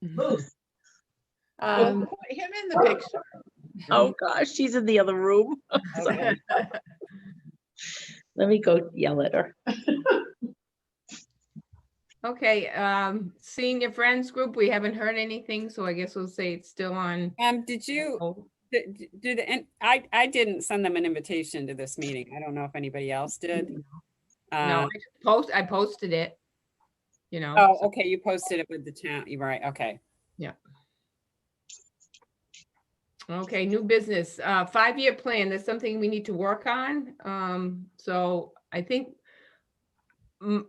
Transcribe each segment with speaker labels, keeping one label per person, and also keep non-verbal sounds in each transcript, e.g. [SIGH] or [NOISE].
Speaker 1: Booth.
Speaker 2: Well,
Speaker 3: Um,
Speaker 2: put Him in the picture.
Speaker 3: [LAUGHS] oh gosh, she's in the other room.
Speaker 2: Okay.
Speaker 3: Let me go yell at her.
Speaker 4: Okay, um, senior friends group, we haven't heard anything, so I guess we'll say it's still on.
Speaker 5: Um, did you,
Speaker 4: hold.
Speaker 5: did, did- and I, I didn't send them an invitation to this meeting. I don't know if anybody else did.
Speaker 4: No, I
Speaker 5: Uh,
Speaker 4: just post, I posted it. You know,
Speaker 5: Oh,
Speaker 4: so-
Speaker 5: okay, you posted it with the town, you're right, okay.
Speaker 4: okay, new business, uh, five-year plan, that's something we need to work on. Um, so I think m-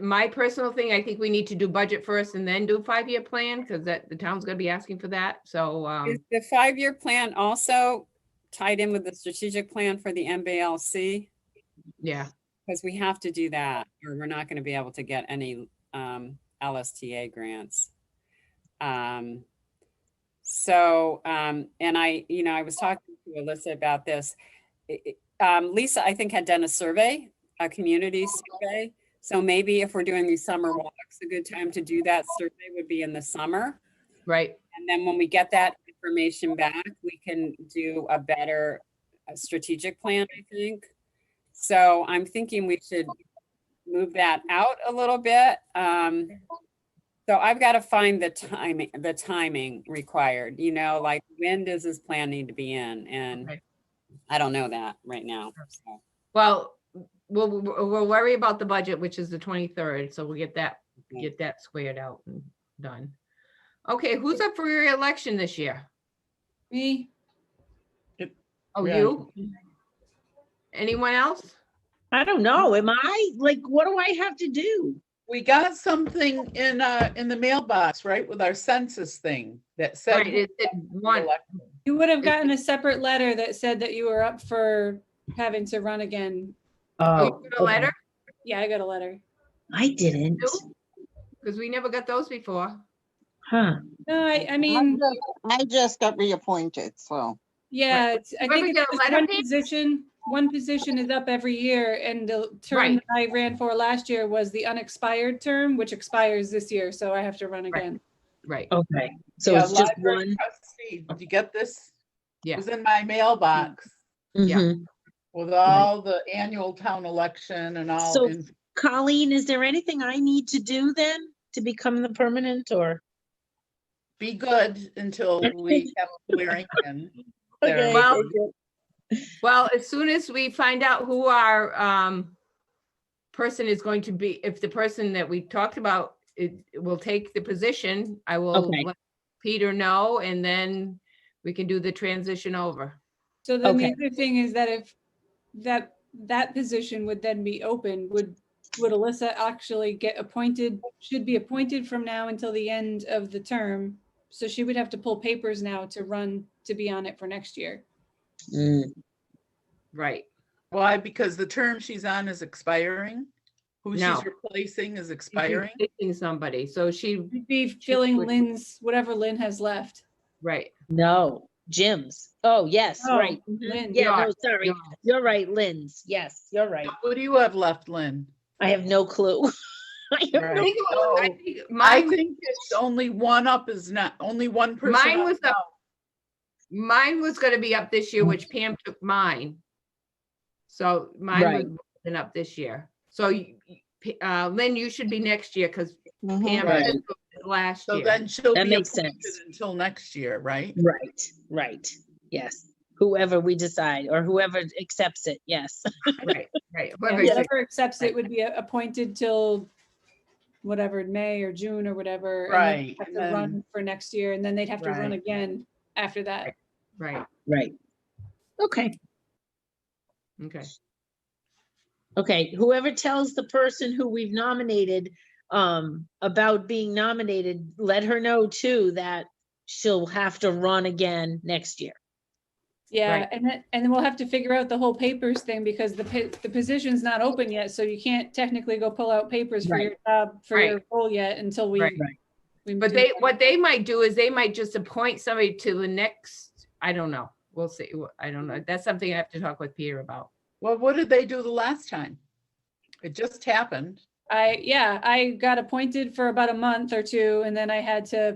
Speaker 4: my personal thing, I think we need to do budget first and then do a five-year plan, because that, the town's gonna be asking for that, so, um,
Speaker 5: Is the five-year plan also tied in with the strategic plan for the MBLC?
Speaker 4: yeah.
Speaker 5: Because we have to do that, or we're not gonna be able to get any um LSTA grants. Um, so, um, and I, you know, I was talking to Alyssa about this. I- I- Um, Lisa, I think had done a survey, a community survey. So maybe if we're doing these summer walks, a good time to do that survey would be in the summer.
Speaker 4: Right,
Speaker 5: And then when we get that information back, we can do a better uh, strategic plan, I think. So I'm thinking we should move that out a little bit. Um, so I've got to find the timing, the timing required, you know, like when does this plan need to be in? And
Speaker 4: Okay.
Speaker 5: I don't know that right now. so.
Speaker 4: well, we'll, we'll we'll worry about the budget, which is the twenty-third, so we'll get that
Speaker 5: Okay.
Speaker 4: get that squared out and done. Okay, who's up for reelection this year?
Speaker 1: Me,
Speaker 4: Oh,
Speaker 1: Yeah.
Speaker 4: you? Anyone else?
Speaker 3: I don't know. Am I like, what do I have to do?
Speaker 2: We got something in, uh, in the mailbox, right, with our census thing that said.
Speaker 4: Right, it it one,
Speaker 6: You would have gotten a separate letter that said that you were up for having to run again.
Speaker 4: you
Speaker 1: oh,
Speaker 4: got a letter,
Speaker 6: Yeah, I got a letter.
Speaker 3: I didn't.
Speaker 4: too? Because we never got those before.
Speaker 3: Huh.
Speaker 6: No, I, I
Speaker 7: I'm
Speaker 6: mean,
Speaker 7: just- I just got reappointed, so.
Speaker 6: yeah, it's- I
Speaker 4: Whoever
Speaker 6: think
Speaker 4: get
Speaker 6: it's
Speaker 4: a
Speaker 6: just
Speaker 4: letter
Speaker 6: one
Speaker 4: pick?
Speaker 6: position, one position is up every year and the
Speaker 4: Right.
Speaker 6: term that I ran for last year was the unexpired term, which expires this year, so I have to run
Speaker 4: Right.
Speaker 6: again.
Speaker 4: Right,
Speaker 3: Okay. So it's just one.
Speaker 2: "Oh, Did you get this?
Speaker 4: Yeah.
Speaker 2: It was in my mailbox
Speaker 4: yeah.
Speaker 3: Mhm.
Speaker 2: with all the annual town election and all.
Speaker 3: So-
Speaker 2: in-
Speaker 3: Colleen, is there anything I need to do then to become the permanent or?
Speaker 2: Be good until we have Warrington.
Speaker 4: [LAUGHS]
Speaker 2: there.
Speaker 3: Okay,
Speaker 4: Well-
Speaker 3: thank you.
Speaker 4: Well, as soon as we find out who our um person is going to be, if the person that we talked about it will take the position, I will
Speaker 3: Okay.
Speaker 4: let Peter know and then we can do the transition over.
Speaker 6: So then
Speaker 3: Okay.
Speaker 6: the other thing is that if that, that position would then be open, would, would Alyssa actually get appointed, should be appointed from now until the end of the term? So she would have to pull papers now to run, to be on it for next year.
Speaker 3: Mm,
Speaker 4: Right,
Speaker 2: Why? Because the term she's on is expiring. Who
Speaker 4: No.
Speaker 2: she's replacing is
Speaker 4: She's
Speaker 2: expiring.
Speaker 4: picking Somebody, so she,
Speaker 6: It'd Be filling Lynn's, whatever Lynn has left.
Speaker 4: right.
Speaker 3: No, Jim's. Oh, yes,
Speaker 6: Oh,
Speaker 3: right. Mm-hmm.
Speaker 6: Lynn,
Speaker 3: Yeah,
Speaker 4: Yar,
Speaker 3: no, sorry.
Speaker 4: yar.
Speaker 3: You're right, Lynn's. Yes, you're right.
Speaker 2: Who do you have left, Lynn?
Speaker 3: I have no clue. [LAUGHS] I have
Speaker 2: Right.
Speaker 4: I
Speaker 3: no
Speaker 4: think it was- I think
Speaker 2: I
Speaker 4: Mine, was-
Speaker 2: think it's only one up is not, only one person.
Speaker 4: mine
Speaker 2: up.
Speaker 4: was up. Mine was gonna be up this year, which Pam took mine. So
Speaker 3: Right.
Speaker 4: mine was been up this year. So you- you- P- uh, Lynn, you should be next year because Pam
Speaker 2: Right.
Speaker 4: took it last
Speaker 2: Mm-hmm. So
Speaker 4: year.
Speaker 2: then she'll
Speaker 3: That
Speaker 2: be
Speaker 3: makes
Speaker 2: appointed
Speaker 3: sense.
Speaker 2: until next year, right?
Speaker 3: Right, right. Yes. Whoever we decide or whoever accepts it. Yes. [LAUGHS]
Speaker 4: Right, right.
Speaker 2: [LAUGHS]
Speaker 6: Yeah,
Speaker 4: Whoever took-
Speaker 6: Whoever accepts it would be a- appointed till whatever, May or June or whatever. and then have
Speaker 2: Right,
Speaker 6: to
Speaker 2: and then-
Speaker 6: Run for next year and then they'd have to run
Speaker 2: Right.
Speaker 6: again after that.
Speaker 4: Right,
Speaker 3: Right. Okay.
Speaker 4: okay.
Speaker 3: Okay. Whoever tells the person who we've nominated um about being nominated, let her know too that she'll have to run again next year.
Speaker 6: Yeah,
Speaker 4: Right.
Speaker 6: and then, and then we'll have to figure out the whole papers thing because the, pa- the position's not open yet, so you can't technically go pull out papers for
Speaker 3: Right.
Speaker 6: your job, for your role yet until we.
Speaker 4: Right.
Speaker 3: Right.
Speaker 6: we
Speaker 4: But
Speaker 6: do
Speaker 4: they,
Speaker 6: that.
Speaker 4: what they might do is they might just appoint somebody to the next, I don't know. We'll see. Wh- I don't know. That's something I have to talk with Peter about.
Speaker 2: Well, what did they do the last time? It just happened.
Speaker 6: I, yeah, I got appointed for about a month or two and then I had to